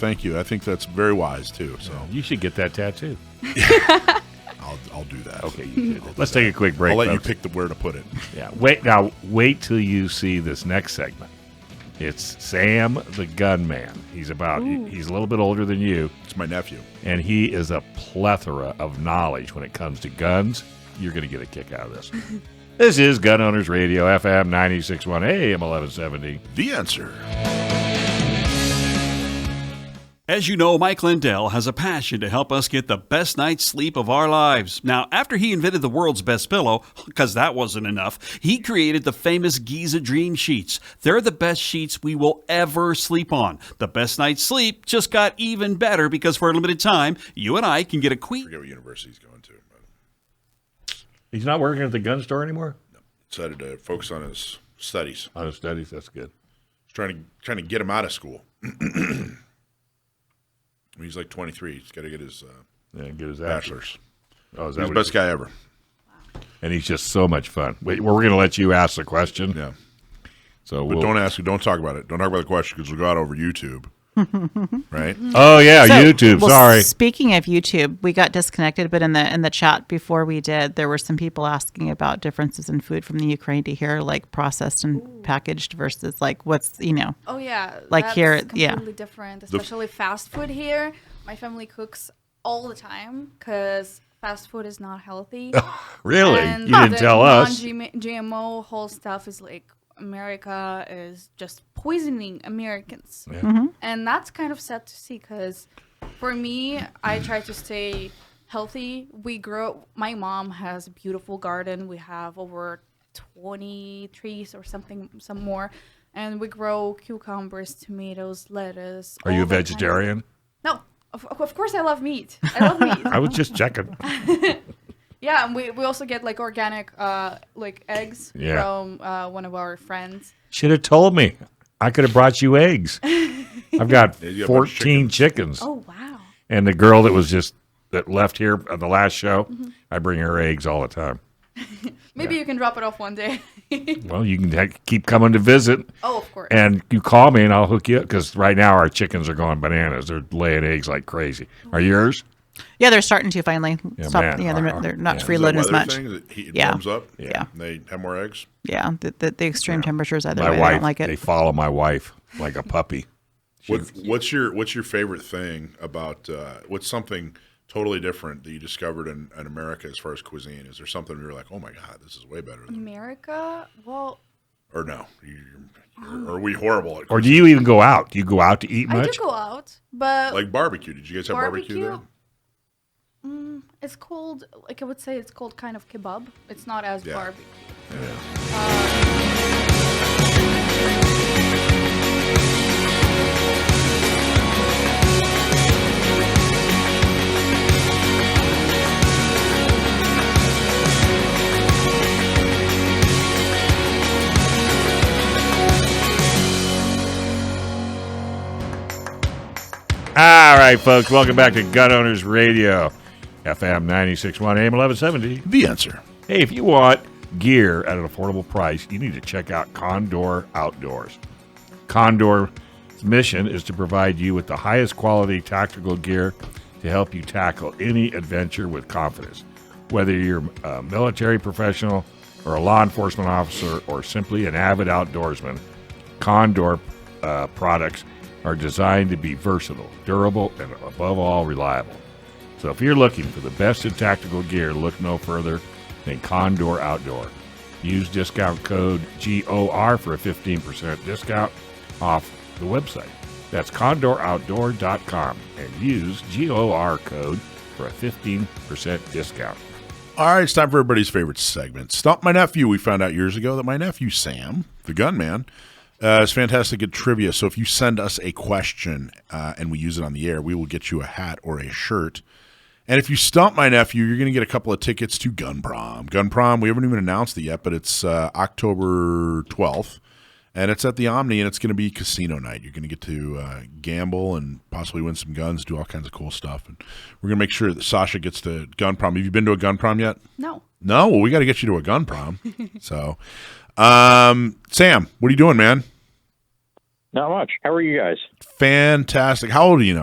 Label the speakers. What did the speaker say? Speaker 1: Thank you. I think that's very wise too. So
Speaker 2: You should get that tattoo.
Speaker 1: I'll, I'll do that.
Speaker 2: Okay, you should. Let's take a quick break.
Speaker 1: I'll let you
Speaker 2: folks.
Speaker 1: pick the where to put it.
Speaker 2: Yeah. Wait now. Wait till you see this next segment. It's Sam the Gunman. He's about. he- He's a little bit older than you,
Speaker 1: It's my nephew.
Speaker 2: and he is a plethora of knowledge when it comes to guns. You're going to get a kick out of this. this is Gun Owners Radio, FM 96.1 AM 1170.
Speaker 1: The answer.
Speaker 3: As you know, Mike Lindell has a passion to help us get the best night's sleep of our lives. Now, after he invented the world's best pillow, because that wasn't enough, he created the famous Giza Dream Sheets. They're the best sheets we will ever sleep on. The best night's sleep just got even better because for a limited time, you and I can get a queen.
Speaker 1: forget what university he's going to. But
Speaker 2: He's not working at the gun store anymore.
Speaker 1: decided to focus on his studies.
Speaker 2: On his studies, that's good.
Speaker 1: He's trying to trying to get him out of school. When he's like 23. He's got to get his uh,
Speaker 2: Yeah, get his
Speaker 1: bachelor's.
Speaker 2: Oh, is that
Speaker 1: He's the
Speaker 2: what
Speaker 1: best guy ever.
Speaker 2: And he's just so much fun. Wait, we're going to let you ask the question.
Speaker 1: Yeah.
Speaker 2: So
Speaker 1: But
Speaker 2: we'll,
Speaker 1: don't ask. Don't talk about it. Don't talk about the question because we'll go out over YouTube. right?
Speaker 2: oh yeah,
Speaker 4: So,
Speaker 2: YouTube.
Speaker 4: well,
Speaker 2: sorry.
Speaker 4: Speaking of YouTube, we got disconnected, but in the in the chat before we did, there were some people asking about differences in food from the Ukraine to here, like processed and packaged versus like what's you know.
Speaker 5: Oh yeah,
Speaker 4: Like
Speaker 5: that's
Speaker 4: here,
Speaker 5: completely
Speaker 4: yeah.
Speaker 5: different, especially fast food here. My family cooks all the time because fast food is not healthy.
Speaker 2: Really?
Speaker 5: And
Speaker 2: you didn't
Speaker 5: the
Speaker 2: tell us.
Speaker 5: Non-GMO whole stuff is like America is just poisoning Americans,
Speaker 2: Yeah.
Speaker 5: and that's kind of sad to see. Because for me, I try to stay healthy. We grow. My mom has a beautiful garden. We have over twenty trees or something, some more, and we grow cucumbers, tomatoes, lettuce.
Speaker 2: Are you a
Speaker 5: all that kind of-
Speaker 2: vegetarian?
Speaker 5: no. Of, of course, I love meat. I love meat.
Speaker 2: I was just checking.
Speaker 5: Yeah, and we, we also get like organic uh like eggs
Speaker 2: Yeah.
Speaker 5: from uh, one of our friends.
Speaker 2: Should have told me. I could have brought you eggs. I've got
Speaker 1: you got a bunch of
Speaker 2: 14 chickens.
Speaker 5: Oh wow.
Speaker 2: And the girl that was just that left here on the last show,
Speaker 4: Mm-hmm.
Speaker 2: I bring her eggs all the time.
Speaker 5: Maybe you can drop it off one day.
Speaker 2: Well, you can ha- keep coming to visit.
Speaker 5: oh, of course.
Speaker 2: And you call me and I'll hook you up because right now our chickens are going bananas. They're laying eggs like crazy.
Speaker 4: Mm-hmm.
Speaker 2: Are yours?
Speaker 4: Yeah, they're starting to finally
Speaker 2: Yeah,
Speaker 4: stop.
Speaker 2: man,
Speaker 4: yeah, they're,
Speaker 2: our-
Speaker 4: they're not
Speaker 2: yeah.
Speaker 1: Is that
Speaker 4: freeloading as
Speaker 1: weather
Speaker 4: much.
Speaker 1: thing that heat
Speaker 4: Yeah.
Speaker 1: warms up.
Speaker 4: Yeah.
Speaker 1: And they have more eggs.
Speaker 4: Yeah, the, the, the extreme temperatures either
Speaker 2: my
Speaker 4: way, I
Speaker 2: wife,
Speaker 4: don't like
Speaker 2: they
Speaker 4: it.
Speaker 2: follow my wife like a puppy.
Speaker 1: What, what's your What's your favorite thing about uh, What's something totally different that you discovered in, in America as far as cuisine? Is there something you were like, oh my god, this is way better? Than,
Speaker 5: America? Well,
Speaker 1: or no, you, you're, you're, are we horrible at
Speaker 2: Or do you even go out? Do you go out to eat
Speaker 5: I
Speaker 2: much?
Speaker 5: do go out, but
Speaker 1: like barbecue? Did you guys have barbecue, there?
Speaker 5: Barbecue? it's called like I would say it's called kind of kebab. It's not as
Speaker 1: Yeah.
Speaker 5: barbecue.
Speaker 2: All right, folks, welcome back to Gun Owners Radio, FM 96.1 AM 1170.
Speaker 1: The answer.
Speaker 2: Hey, if you want gear at an affordable price, you need to check out Condor Outdoors. Condor's mission is to provide you with the highest quality tactical gear to help you tackle any adventure with confidence. Whether you're a military professional or a law enforcement officer or simply an avid outdoorsman, Condor uh, products are designed to be versatile, durable, and above all, reliable. So if you're looking for the best in tactical gear, look no further than Condor Outdoor. Use discount code GOR for a 15% discount off the website. That's condoroutdoor.com and use GOR code for a 15% discount.
Speaker 1: All right, it's time for everybody's favorite segment. Stump my nephew. We found out years ago that my nephew Sam, the gunman, uh, is fantastic at trivia. So if you send us a question uh, and we use it on the air, we will get you a hat or a shirt. And if you stump my nephew, you're going to get a couple of tickets to Gun Prom. Gun Prom, we haven't even announced it yet, but it's uh, October 12th. And it's at the Omni, and it's going to be casino night. You're going to get to uh, gamble and possibly win some guns, do all kinds of cool stuff. And we're going to make sure that Sasha gets to Gun Prom. Have you been to a Gun Prom yet?
Speaker 5: No.
Speaker 1: No, well, we got to get you to a gun prom. so, um, Sam, what are you doing, man?
Speaker 6: Not much. How are you guys?
Speaker 1: Fantastic. How old are you now?